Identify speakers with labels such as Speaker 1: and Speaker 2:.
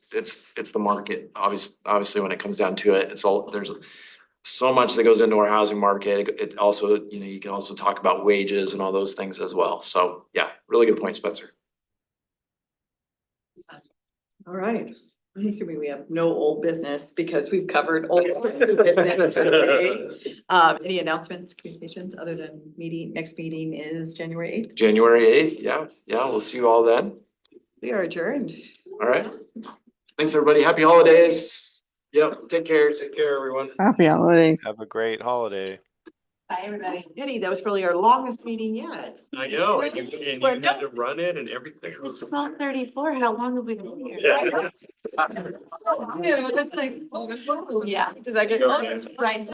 Speaker 1: it's, it's the market. Obviously, obviously, when it comes down to it, it's all, there's so much that goes into our housing market. It also, you know, you can also talk about wages and all those things as well. So yeah, really good point, Spencer.
Speaker 2: All right, I'm assuming we have no old business because we've covered old and new business today. Um, any announcements, communications, other than meeting, next meeting is January eighth.
Speaker 1: January eighth, yeah, yeah, we'll see you all then.
Speaker 2: We are adjourned.
Speaker 1: All right. Thanks, everybody. Happy holidays. Yep, take care. Take care, everyone.
Speaker 3: Happy holidays.
Speaker 4: Have a great holiday.
Speaker 2: Bye, everybody. Pity, that was probably our longest meeting yet.
Speaker 5: I know, and you,
Speaker 2: It's
Speaker 5: and you
Speaker 2: where-
Speaker 5: had to run it and everything.
Speaker 6: It's twelve thirty-four, how long have we been here?
Speaker 5: Yeah.
Speaker 2: Yeah, does that get, oh, it's right